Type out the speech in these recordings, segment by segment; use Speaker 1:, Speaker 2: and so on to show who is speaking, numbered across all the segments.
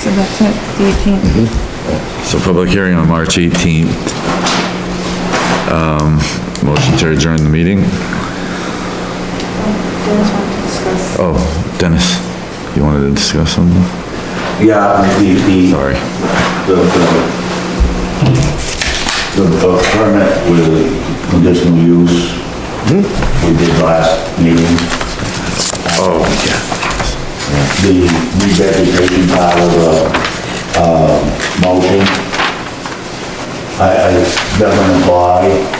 Speaker 1: So that's it, the 18th.
Speaker 2: So public hearing on March 18th. Um, Motion to adjourn the meeting? Oh, Dennis, you wanted to discuss something?
Speaker 3: Yeah, the, the,
Speaker 2: Sorry.
Speaker 3: the, the, the the permit with the conditional use we did last meeting,
Speaker 2: Oh, yeah.
Speaker 3: the revegetation part of the, um, motion. I, I definitely apply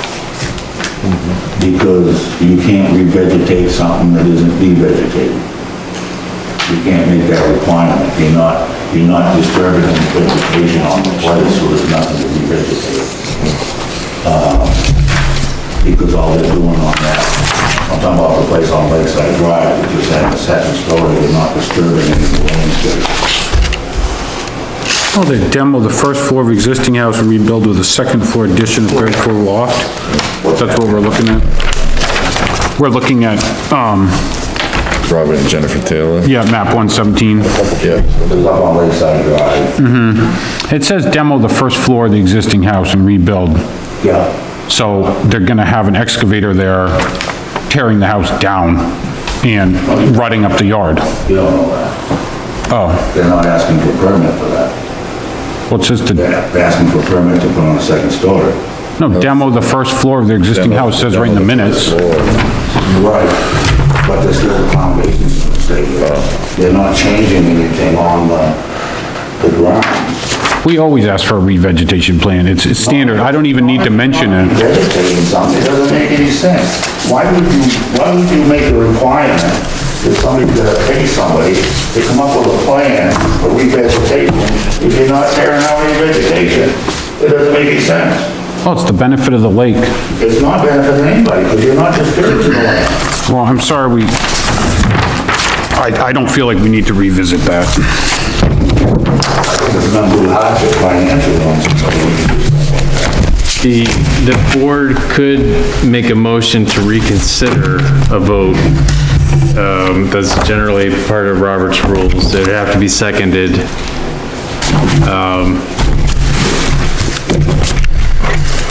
Speaker 3: because you can't revegetate something that isn't devegetated. You can't make that requirement, you're not, you're not disturbing the vegetation on the place, so there's nothing to revegetate. Um, Because all they're doing on that, I'm talking about the place on Lakeside Drive, which is at the second story, they're not disturbing any of the landscape.
Speaker 4: Well, they demoed the first floor of existing house and rebuilt with a second floor addition, a third floor loft. That's what we're looking at. We're looking at, um,
Speaker 2: Robert and Jennifer Taylor?
Speaker 4: yeah, map one seventeen.
Speaker 2: Yeah.
Speaker 3: It's up on Lakeside Drive,
Speaker 4: It says demo the first floor of the existing house and rebuild.
Speaker 3: yeah.
Speaker 4: So they're gonna have an excavator there tearing the house down and rutting up the yard.
Speaker 3: You don't know that. Oh. They're not asking for permit for that.
Speaker 4: Well, it says to,
Speaker 3: They're they're asking for permit to put on a second story.
Speaker 4: no, demo the first floor of the existing house, says right in the minutes.
Speaker 3: Right. But there's still a foundation to stay
Speaker 4: Oh.
Speaker 3: there. They're not changing anything on the, the ground.
Speaker 4: We always ask for a revegetation plan, it's, it's standard, I don't even need to mention it.
Speaker 3: Vegetating something, it doesn't make any sense. Why would you, why would you make a requirement that somebody's gonna pay somebody to come up with a plan for revegetation if you're not tearing out any vegetation? It doesn't make any sense.
Speaker 4: Oh, it's the benefit of the lake.
Speaker 3: It's not benefiting anybody, because you're not disturbing the land.
Speaker 4: Well, I'm sorry we, I, I don't feel like we need to revisit that.
Speaker 3: It's not good hardship financially on somebody.
Speaker 5: The, the board could make a motion to reconsider a vote. Um, That's generally part of Robert's rules. It'd have to be seconded. um,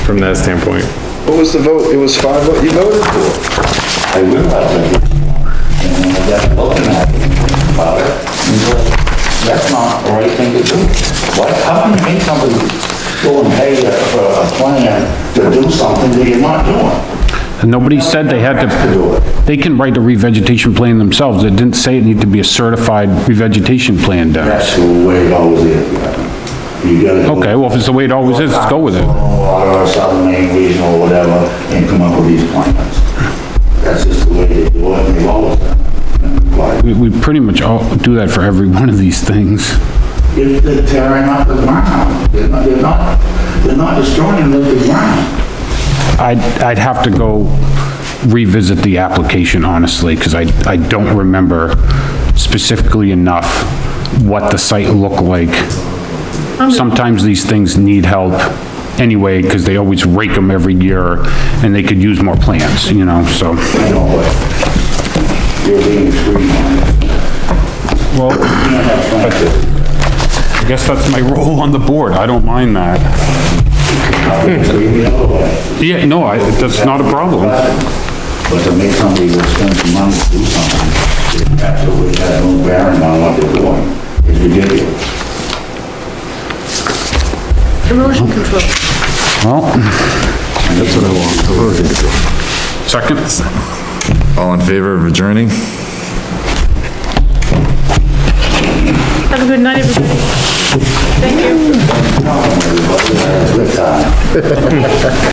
Speaker 5: From that standpoint.
Speaker 6: What was the vote? It was five, what you voted for?
Speaker 3: I realize that, and when I got looking at it, about it, and said, that's not the right thing to do. Why, how can you make somebody go and pay a- for a plan to do something that you're not doing?
Speaker 4: And nobody said they had
Speaker 3: To do
Speaker 4: to,
Speaker 3: it.
Speaker 4: they can write a revegetation plan themselves, it didn't say it needed to be a certified revegetation plan done.
Speaker 3: That's the way it always is, yeah. You gotta do it.
Speaker 4: Okay, well, if it's the way it always is, let's go with it.
Speaker 3: Or Southern Maine Regional or whatever, and come up with these plans. That's just the way they do it, and they've always done it. And Like,
Speaker 4: We, we pretty much all do that for every one of these things.
Speaker 3: if they're tearing up the ground, they're not, they're not, they're not destroying the ground.
Speaker 4: I'd, I'd have to go revisit the application honestly, because I, I don't remember specifically enough what the site looked like. Sometimes these things need help anyway, because they always rake them every year, and they could use more plants, you know, so.
Speaker 3: You know, but you're being extreme on it.
Speaker 4: Well, I
Speaker 3: You have plans
Speaker 4: guess that's my role on the board, I don't mind that.
Speaker 3: that are extreme the other way.
Speaker 4: Yeah, no, I, that's not a problem.
Speaker 3: But to make somebody go spend some money to do something, it absolutely has no bearing on what they're doing. It's ridiculous.
Speaker 1: Erosion control.
Speaker 4: Well. That's what I want. Second?
Speaker 2: All in favor of adjourning?
Speaker 1: Have a good night, everybody. Thank you.